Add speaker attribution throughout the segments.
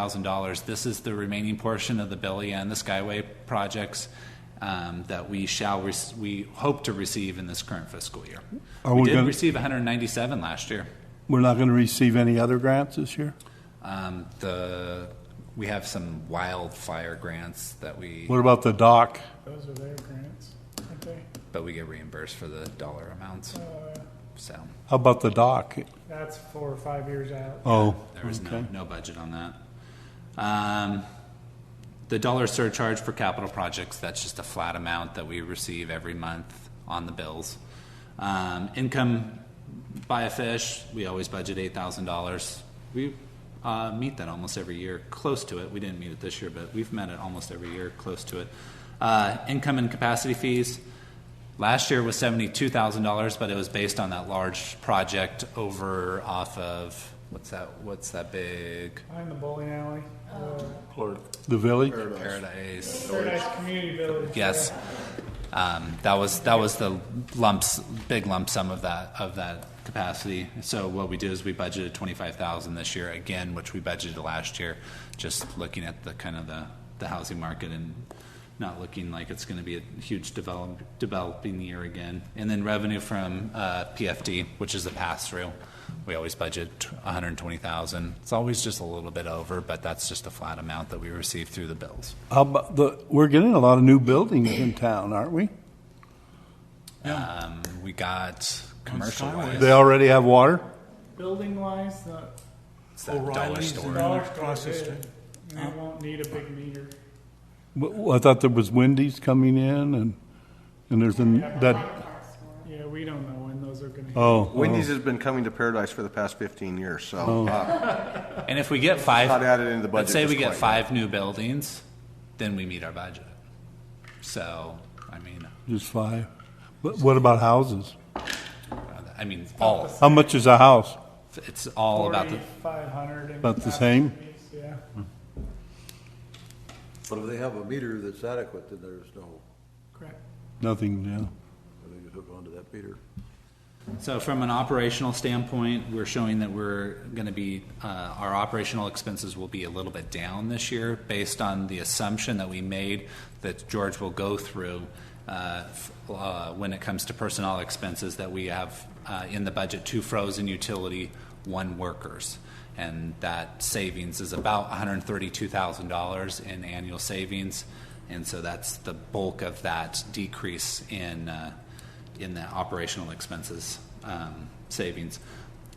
Speaker 1: thousand dollars. This is the remaining portion of the Billy and the Skyway projects um, that we shall, rec- we hope to receive in this current fiscal year.
Speaker 2: Are
Speaker 1: We
Speaker 2: we
Speaker 1: did
Speaker 2: gonna-
Speaker 1: receive one hundred and ninety-seven last year.
Speaker 2: We're not going to receive any other grants this year?
Speaker 1: Um, The, we have some wildfire grants that we,
Speaker 2: What about the dock?
Speaker 3: Those are their grants, aren't they?
Speaker 1: but we get reimbursed for the dollar amounts, so.
Speaker 2: How about the dock?
Speaker 3: That's four or five years out.
Speaker 2: Oh,
Speaker 1: There was no,
Speaker 2: okay.
Speaker 1: no budget on that. Um, the dollar surcharge for capital projects, that's just a flat amount that we receive every month on the bills. Um, income, buy a fish, we always budget eight thousand dollars. We, uh, meet that almost every year, close to it. We didn't meet it this year, but we've met it almost every year, close to it. Uh, income and capacity fees, Last year was seventy-two thousand dollars, but it was based on that large project over off of what's that? What's that big
Speaker 3: Behind the bowling alley, uh,
Speaker 2: The village?
Speaker 1: paradise?
Speaker 3: Paradise Community Village.
Speaker 1: Yes, um, that was that was the lumps, big lump sum of that of that capacity. So what we did is we budgeted twenty-five thousand this year again, which we budgeted last year. Just looking at the kind of the the housing market and not looking like it's going to be a huge develop, developing year again. And then revenue from uh, PFD, which is the pass through. We always budget one hundred twenty thousand. It's always just a little bit over, but that's just a flat amount that we receive through the bills.
Speaker 2: How about the, we're getting a lot of new buildings in town, aren't we?
Speaker 1: Um, we got commercial wise.
Speaker 2: They already have water?
Speaker 3: Building wise, the
Speaker 1: It's that dollar
Speaker 4: O'Reilly's
Speaker 1: store.
Speaker 4: and-
Speaker 3: dollar store
Speaker 4: Across the
Speaker 3: is,
Speaker 4: street.
Speaker 3: they
Speaker 2: Oh.
Speaker 3: won't need a big meter.
Speaker 2: Well, I thought there was Wendy's coming in and, and there's an, that,
Speaker 3: Yeah, we don't know when those are gonna. hit.
Speaker 2: oh.
Speaker 5: Wendy's has been coming to Paradise for the past 15 years, so uh,
Speaker 1: And if we get
Speaker 5: not
Speaker 1: five,
Speaker 5: added into the budget.
Speaker 1: let's say we
Speaker 5: just
Speaker 1: get
Speaker 5: quite
Speaker 1: five new buildings, then we meet our budget. So, I mean,
Speaker 2: Just five. But what about houses?
Speaker 1: I mean, all,
Speaker 2: How much is a house?
Speaker 1: it's all about the,
Speaker 3: Forty-five hundred.
Speaker 2: About the same?
Speaker 3: Yeah,
Speaker 6: But if they have a meter that's adequate, then there's no,
Speaker 3: correct.
Speaker 2: Nothing, yeah.
Speaker 6: they can hook onto that meter.
Speaker 1: so from an operational standpoint, we're showing that we're gonna be, uh, our operational expenses will be a little bit down this year based on the assumption that we made that George will go through, uh, f- uh, when it comes to personnel expenses that we have, uh, in the budget, two frozen utility, one workers. and that savings is about $132,000 in annual savings. And so that's the bulk of that decrease in, uh, in the operational expenses um, savings.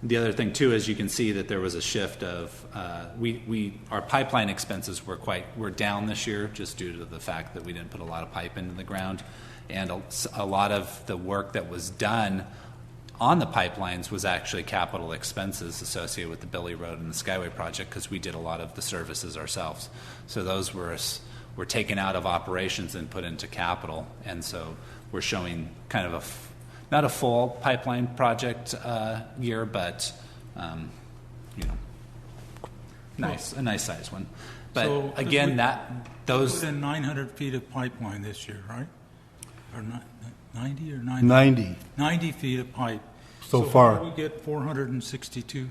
Speaker 1: The other thing too is you can see that there was a shift of uh, we, we our pipeline expenses were quite were down this year just due to the fact that we didn't put a lot of pipe into the ground, and a, a lot of the work that was done on the pipelines was actually capital expenses associated with the Billy Road and the Skyway project because we did a lot of the services ourselves. So those were s- were taken out of operations and put into capital, and so we're showing kind of a f- not a full pipeline project uh, year, but um, you know, nice a nice size one. But
Speaker 4: So, if
Speaker 1: again,
Speaker 4: we-
Speaker 1: that those
Speaker 4: Put in 900 feet of pipeline this year, right? Or ni- 90 or 90?
Speaker 2: Ninety.
Speaker 4: 90 feet of pipe.
Speaker 2: So
Speaker 4: far,
Speaker 2: far.
Speaker 4: We get 462.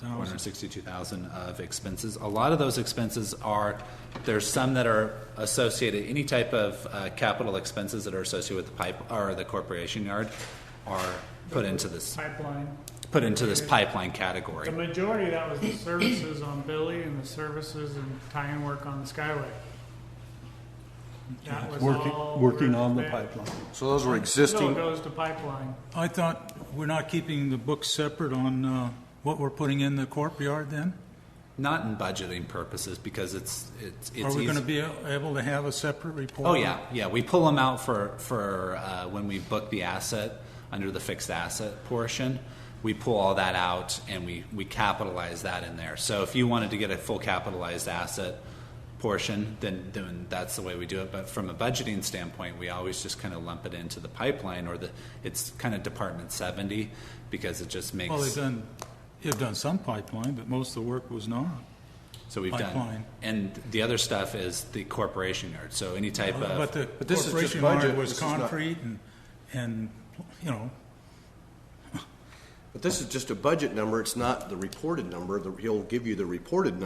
Speaker 1: One hundred sixty-two thousand of expenses. A lot of those expenses are, there's some that are associated, any type of uh, capital expenses that are associated with the pipe, or the corporation yard are put into this,
Speaker 3: Pipeline.
Speaker 1: put into this pipeline
Speaker 3: The
Speaker 1: category.
Speaker 3: majority of that was the services on Billy and the services and tie-in work on the Skyway. That was
Speaker 2: Working,
Speaker 3: all
Speaker 2: working
Speaker 3: we're
Speaker 2: on the
Speaker 3: expect-
Speaker 2: pipeline.
Speaker 5: well. So those were
Speaker 3: Still
Speaker 5: existing,
Speaker 3: goes to pipeline.
Speaker 4: I thought we're not keeping the books separate on uh, what we're putting in the corp yard then?
Speaker 1: Not in budgeting purposes, because it's, it's, it's.
Speaker 4: Are we going to
Speaker 1: easy-
Speaker 4: be able to have a separate report?
Speaker 1: Oh, yeah, yeah, we pull them out for, for, uh, when we book the asset, under the fixed asset portion. We pull all that out and we, we capitalize that in there. So if you wanted to get a full capitalized asset portion, then, then that's the way we do it. But from a budgeting standpoint, we always just kind of lump it into the pipeline or the, it's kind of Department seventy, because it just
Speaker 4: Well, they've
Speaker 1: makes,
Speaker 4: done, they've done some pipeline, but most of the work was not.
Speaker 1: so we've done.
Speaker 4: pipeline.
Speaker 1: And the other stuff is the corporation yard, so any type of.
Speaker 4: But the
Speaker 5: uh, this is just
Speaker 4: corporation
Speaker 5: budget,
Speaker 4: yard
Speaker 5: this
Speaker 4: was
Speaker 5: is not-
Speaker 4: concrete and, and, you know,
Speaker 5: But this is just a budget number, it's not the reported number, The- he'll give you the reported number